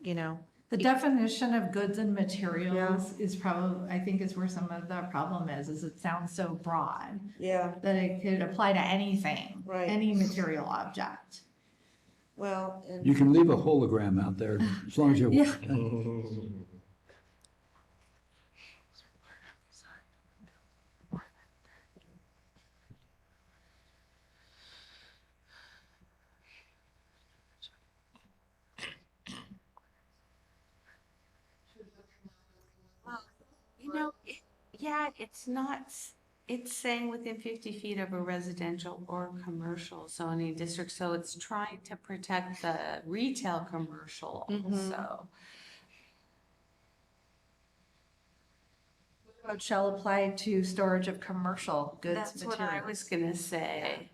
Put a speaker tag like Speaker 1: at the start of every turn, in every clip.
Speaker 1: you know,
Speaker 2: The definition of goods and materials is probably, I think is where some of the problem is, is it sounds so broad
Speaker 1: yeah,
Speaker 2: that it could apply to anything,
Speaker 1: Right.
Speaker 2: any material object.
Speaker 1: well, and
Speaker 3: You can leave a hologram out there as long as you.
Speaker 2: Yeah.
Speaker 4: You know, it, yeah, it's not, s- it's saying within fifty feet of a residential or commercial zoning district, so it's trying to protect the retail commercial also.
Speaker 2: Code shall apply to storage of commercial goods,
Speaker 4: That's what I
Speaker 2: materials.
Speaker 4: was gonna say.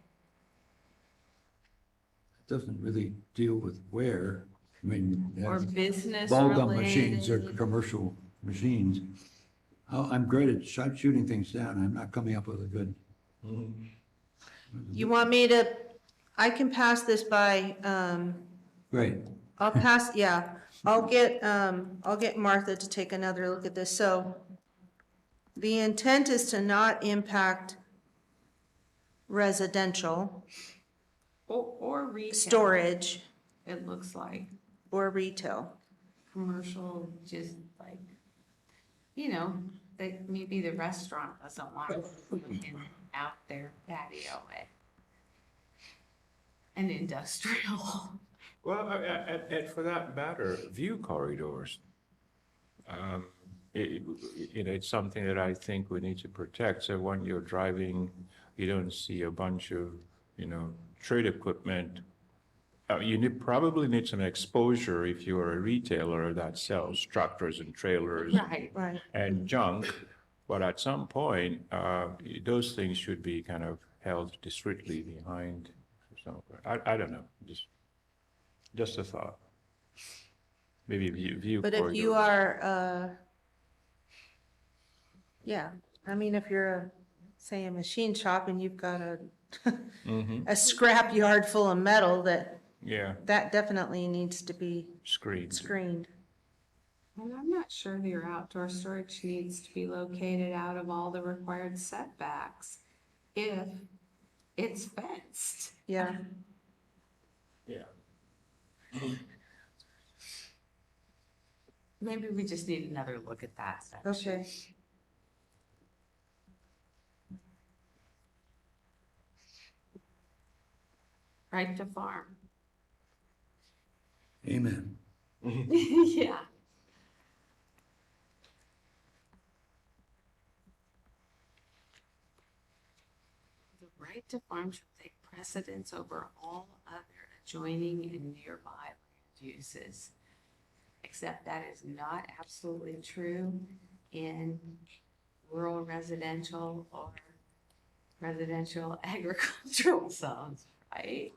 Speaker 3: Doesn't really deal with where, I mean.
Speaker 4: Or
Speaker 3: that's-
Speaker 4: business
Speaker 3: ball gum machines or
Speaker 4: related.
Speaker 3: commercial machines. Oh, I'm great at shot shooting things down, I'm not coming up with a good,
Speaker 1: you want me to, I can pass this by, um,
Speaker 3: great.
Speaker 1: I'll pass, yeah, I'll get, um, I'll get Martha to take another look at this, so the intent is to not impact residential,
Speaker 4: Or, or retail.
Speaker 1: storage,
Speaker 4: It looks like
Speaker 1: or retail.
Speaker 4: commercial, just like, you know, that maybe the restaurant doesn't want in out their patio. eh? An industrial.
Speaker 5: Well, I- I- and, and for that matter, view corridors. Um, it, it- you know, it's something that I think we need to protect. So when you're driving, you don't see a bunch of, you know, trade equipment. Uh, you need, probably need some exposure if you are a retailer that sells tractors and trailers
Speaker 4: Right.
Speaker 1: Right.
Speaker 5: and junk. But at some point, uh, those things should be kind of held discreetly behind. some- I, I don't know, just, just a thought. Maybe view, view.
Speaker 1: But if you
Speaker 5: corridors.
Speaker 1: are, uh, yeah, I mean, if you're, a say, a machine shop and you've got a,
Speaker 5: Mhm.
Speaker 1: a scrap yard full of metal, that,
Speaker 5: Yeah,
Speaker 1: that definitely needs to be
Speaker 5: screened.
Speaker 1: screened.
Speaker 4: And I'm not sure that your outdoor storage needs to be located out of all the required setbacks if it's fenced.
Speaker 1: Yeah,
Speaker 5: Yeah.
Speaker 4: Maybe we just need another look at that section.
Speaker 1: okay.
Speaker 4: Right to farm.
Speaker 3: Amen.
Speaker 4: Yeah. The right to farm shall take precedence over all other adjoining and nearby land uses. Except that is not absolutely true in rural residential or residential agricultural zones, right?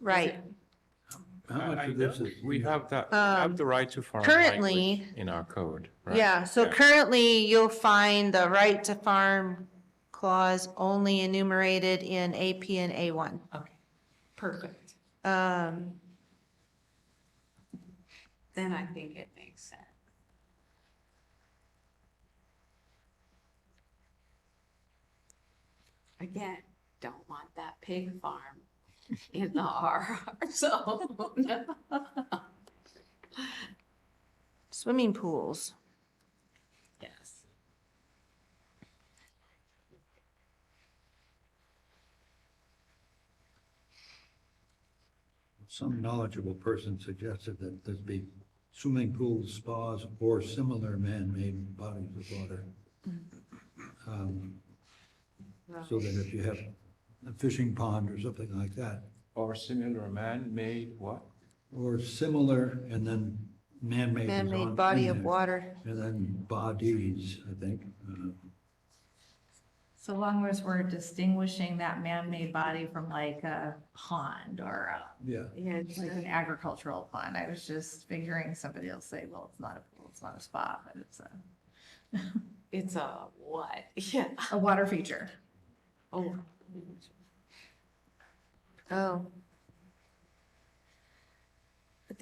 Speaker 1: Right.
Speaker 3: How
Speaker 5: I-
Speaker 3: much
Speaker 5: I
Speaker 3: of this
Speaker 5: know
Speaker 3: is-
Speaker 5: We have that, we have
Speaker 1: Um,
Speaker 5: the right to farm
Speaker 1: currently-
Speaker 5: language in our code, right?
Speaker 1: Yeah, so currently you'll find the right to farm clause only enumerated in AP and A1.
Speaker 4: Okay, perfect.
Speaker 1: Um,
Speaker 4: Then I think it makes sense. Again, don't want that pig farm in the RR zone.
Speaker 1: Swimming pools,
Speaker 4: Yes.
Speaker 3: Some knowledgeable person suggested that there'd be swimming pools, spas, or similar man-made bodies of water. Um, So that if you have a fishing pond or something like that,
Speaker 5: Or similar man-made what?
Speaker 3: or similar, and then man-made. is on-
Speaker 1: man-made
Speaker 3: in
Speaker 1: body of
Speaker 3: there.
Speaker 1: water.
Speaker 3: And then bodies, I think. uh,
Speaker 2: So long as we're distinguishing that man-made body from like a pond or a
Speaker 3: Yeah,
Speaker 4: Yeah, it's
Speaker 2: like an
Speaker 4: a-
Speaker 2: agricultural pond. I was just figuring somebody will say, well, it's not a pool, it's not a spa, but it's a,
Speaker 4: it's a what? Oh. Yeah.
Speaker 2: a water feature.
Speaker 4: Oh,
Speaker 1: Oh,